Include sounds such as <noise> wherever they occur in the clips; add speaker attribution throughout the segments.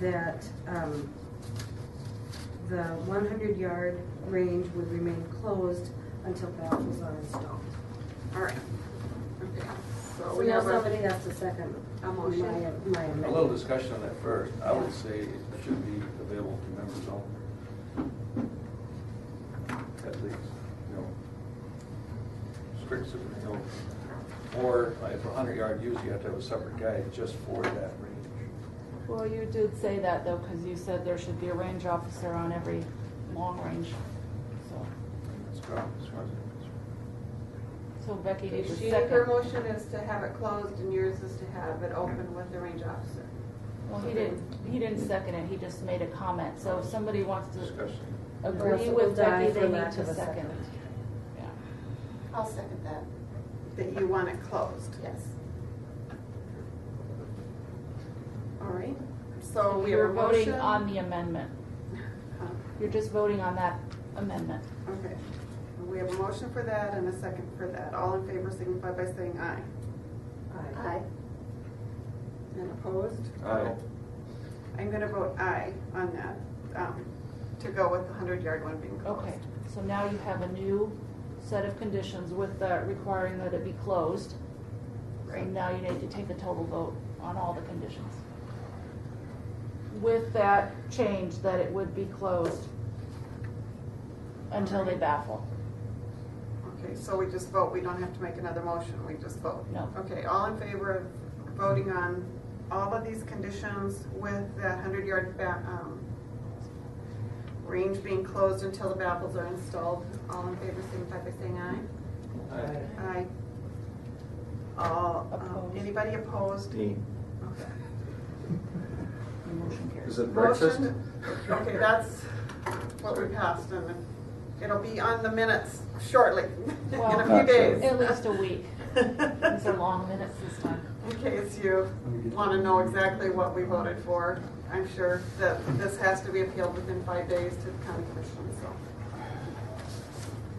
Speaker 1: that um, the 100-yard range would remain closed until baffles are installed.
Speaker 2: All right. Okay, so
Speaker 1: So
Speaker 2: we
Speaker 1: now
Speaker 2: have
Speaker 1: somebody
Speaker 2: a,
Speaker 1: has to second
Speaker 2: A
Speaker 1: my,
Speaker 2: motion.
Speaker 1: my
Speaker 3: A little
Speaker 1: amendment.
Speaker 3: discussion on that first. I would say it should be available to members only. At least, you know, strict, super- you know, or like for a hundred yard use, you have to have a separate guide just for that range.
Speaker 4: Well, you did say that though, because you said there should be a range officer on every long range. So,
Speaker 3: And That's gone, as far as I'm
Speaker 4: so Becky did the
Speaker 2: she, her
Speaker 4: second.
Speaker 2: motion is to have it closed and yours is to have it open with the range officer.
Speaker 4: Well, he didn't, he didn't second it, he just made a comment. So if somebody wants
Speaker 3: concerned.
Speaker 4: to
Speaker 3: Discussion.
Speaker 1: Or else
Speaker 4: agree
Speaker 1: it will
Speaker 4: with
Speaker 1: die
Speaker 4: Becky,
Speaker 1: for
Speaker 4: they need
Speaker 1: lack of
Speaker 4: to
Speaker 1: a second.
Speaker 4: second. Yeah.
Speaker 5: I'll second that,
Speaker 2: That you want it closed.
Speaker 5: yes.
Speaker 2: All right, so we have
Speaker 4: You're
Speaker 2: a motion.
Speaker 4: voting on the amendment.
Speaker 2: Uh,
Speaker 4: You're just voting on that amendment.
Speaker 2: <laughs> Okay, we have a motion for that and a second for that. All in favor signify by saying aye.
Speaker 1: Aye.
Speaker 2: And opposed?
Speaker 3: Aye.
Speaker 2: I'm gonna vote aye on that, um, to go with the hundred yard one being closed.
Speaker 4: Okay, so now you have a new set of conditions with the requiring that it be closed. So
Speaker 2: Right.
Speaker 4: now you need to take a total vote on all the conditions. With that change that it would be closed until they baffle.
Speaker 2: Okay, so we just vote, we don't have to make another motion, we just vote?
Speaker 4: No.
Speaker 2: Okay, all in favor of voting on all of these conditions with the hundred yard ba, um, range being closed until the baffles are installed? All in favor, signify by saying aye.
Speaker 3: Aye.
Speaker 2: Aye. All, um,
Speaker 4: Opposed.
Speaker 2: anybody opposed? Okay.
Speaker 4: The motion carries.
Speaker 6: Is it breakfast?
Speaker 2: Motion- Okay, that's what we passed, and it'll be on the minutes shortly, <laughs> in a
Speaker 4: Well,
Speaker 2: few days.
Speaker 4: At least a week.
Speaker 2: <laughs>
Speaker 4: These are long minutes this time.
Speaker 2: In case you want to know exactly what we voted for, I'm sure that this has to be appealed within five days to the county commission,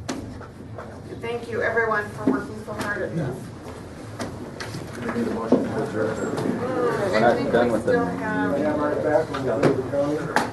Speaker 2: so. Thank you, everyone, for working so hard at this.
Speaker 6: We need a motion to adjourn.
Speaker 2: We're
Speaker 6: not done with it.
Speaker 2: I think Uh, we still have,
Speaker 7: I am right back when we leave the county.
Speaker 1: Oh,